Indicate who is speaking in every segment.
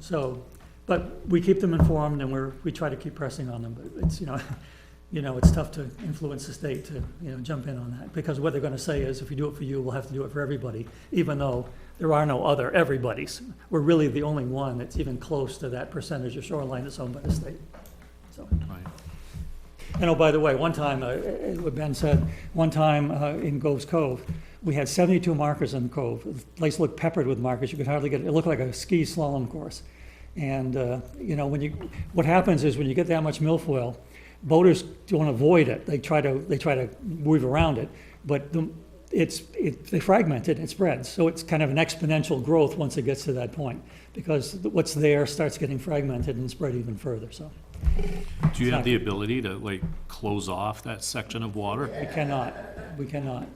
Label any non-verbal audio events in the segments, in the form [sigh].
Speaker 1: So, but we keep them informed and we're, we try to keep pressing on them, but it's, you know, [laughs] you know, it's tough to influence the state to, you know, jump in on that, because what they're gonna say is, if you do it for you, we'll have to do it for everybody, even though there are no other everybody's. We're really the only one that's even close to that percentage of shoreline that's owned by the state, so.
Speaker 2: Right.
Speaker 1: And oh, by the way, one time, uh, uh, what Ben said, one time uh, in Gove's Cove, we had 72 markers in the cove. The place looked peppered with markers. You could hardly get, it looked like a ski slalom course. And, uh, you know, when you, what happens is when you get that much milfoil, boaters don't avoid it. They try to, they try to weave around it. But the, it's, it, they fragment it, it spreads. So it's kind of an exponential growth once it gets to that point. Because what's there starts getting fragmented and spread even further, so
Speaker 2: Do you have the ability to like close off that section of water?
Speaker 1: we cannot, we cannot.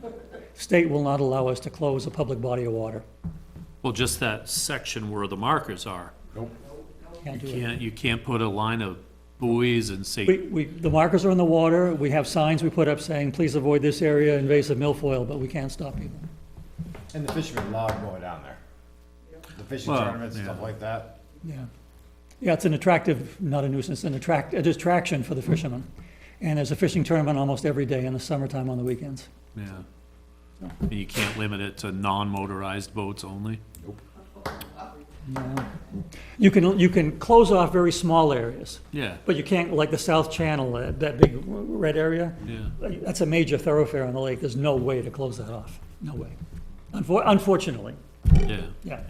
Speaker 1: State will not allow us to close a public body of water.
Speaker 2: Well, just that section where the markers are.
Speaker 1: Can't do it.
Speaker 2: Can't, you can't put a line of buoys and
Speaker 1: We,
Speaker 2: say,
Speaker 1: we, the markers are in the water, we have signs we put up saying, please avoid this area, invasive milfoil, but we can't stop people.
Speaker 3: And the fishermen love going down there. The fishing
Speaker 2: Well,
Speaker 3: tournaments, and stuff
Speaker 2: yeah.
Speaker 3: like that.
Speaker 1: Yeah. Yeah, it's an attractive, not a nuisance, an attract, a distraction for the fishermen. And there's a fishing tournament almost every day in the summertime on the weekends.
Speaker 2: yeah. And you can't limit it to non-motorized boats only?
Speaker 1: Yeah. You can, you can close off very small areas,
Speaker 2: Yeah,
Speaker 1: but you can't, like the South Channel, uh, that big r- red area,
Speaker 2: yeah.
Speaker 1: that's a major thoroughfare on the lake, there's no way to close that off, no way. Unfor- Unfortunately,
Speaker 2: Yeah,
Speaker 1: yeah.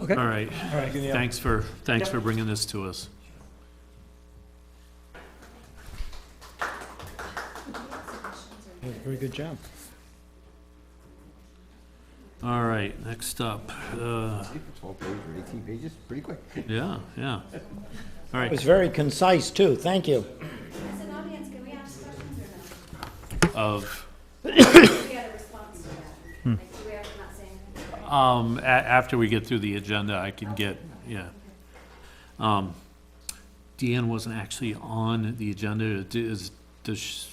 Speaker 1: Okay,
Speaker 2: all
Speaker 1: all
Speaker 2: right.
Speaker 1: right.
Speaker 2: Thanks for, thanks for bringing this to us.
Speaker 3: Very good job.
Speaker 2: All right, next up, uh,
Speaker 3: Twelve pages or eighteen pages, pretty quick.
Speaker 2: yeah, yeah. All
Speaker 4: It
Speaker 2: right,
Speaker 4: was very concise, too, thank you.
Speaker 5: As an audience, can we ask questions or
Speaker 2: of,
Speaker 5: no? We had a response to that. Like, do we have to not say anything?
Speaker 2: um, a- after we get through the agenda, I can get, yeah. Um, Deanne wasn't actually on the agenda, D- is, does, sh-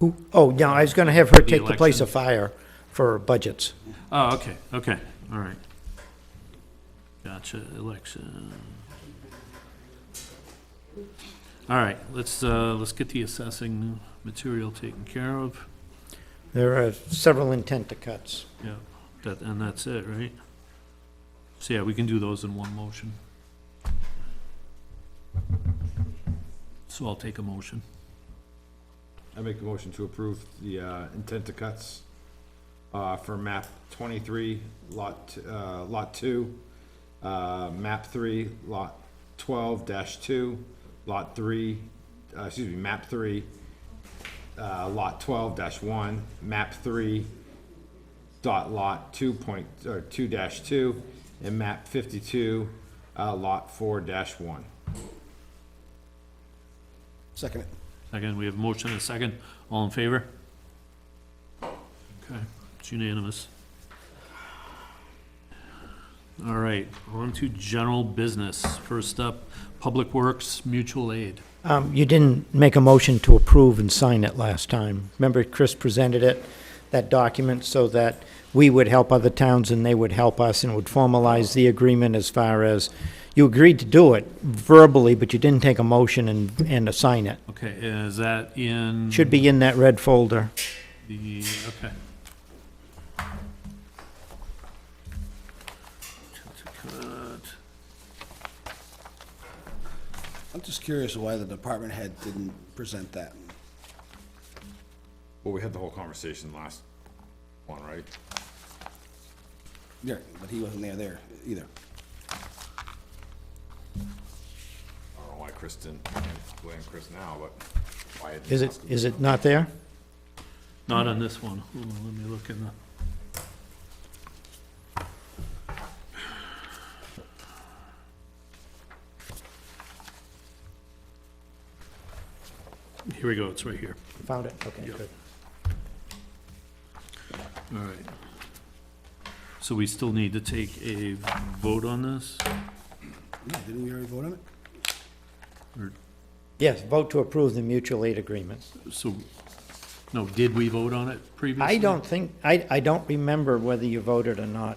Speaker 4: Who, oh, yeah, I was gonna have her take the place
Speaker 2: election.
Speaker 4: of fire for budgets.
Speaker 2: oh, okay, okay, all right. Gotcha, election. All right, let's, uh, let's get the assessing material taken care of.
Speaker 4: There are several intent to cuts.
Speaker 2: Yeah, that, and that's it, right? So, yeah, we can do those in one motion. So I'll take a motion.
Speaker 3: I make a motion to approve the uh, intent to cuts uh, for map twenty-three, lot, uh, lot two, uh, map three, lot twelve dash two, lot three, uh, excuse me, map three, uh, lot twelve dash one, map three, dot lot two point, or two dash two, and map fifty-two, uh, lot four dash one.
Speaker 4: Second.
Speaker 2: Second, we have a motion and a second. All in favor? Okay, it's unanimous. All right, on to general business. First up, Public Works Mutual Aid.
Speaker 4: Um, you didn't make a motion to approve and sign it last time. Remember, Chris presented it, that document, so that we would help other towns and they would help us and would formalize the agreement as far as, you agreed to do it verbally, but you didn't take a motion and, and assign it.
Speaker 2: Okay, is that in?
Speaker 4: Should be in that red folder.
Speaker 2: The, okay.
Speaker 6: I'm just curious why the department head didn't present that.
Speaker 3: Well, we had the whole conversation last one, right?
Speaker 6: Yeah, but he wasn't there there either.
Speaker 3: I don't know why Chris didn't blame Chris now, but why? didn't
Speaker 4: Is
Speaker 3: he
Speaker 4: it,
Speaker 3: ask him?
Speaker 4: is it not there?
Speaker 2: Not on this one. Hold on, let me look in the. Here we go, it's right here.
Speaker 4: Found it, okay, good.
Speaker 2: All right. So we still need to take a vote on this?
Speaker 6: No, didn't we already vote on it?
Speaker 4: Yes, vote to approve the mutual aid agreements.
Speaker 2: So, no, did we vote on it previously?
Speaker 4: I don't think, I, I don't remember whether you voted or not.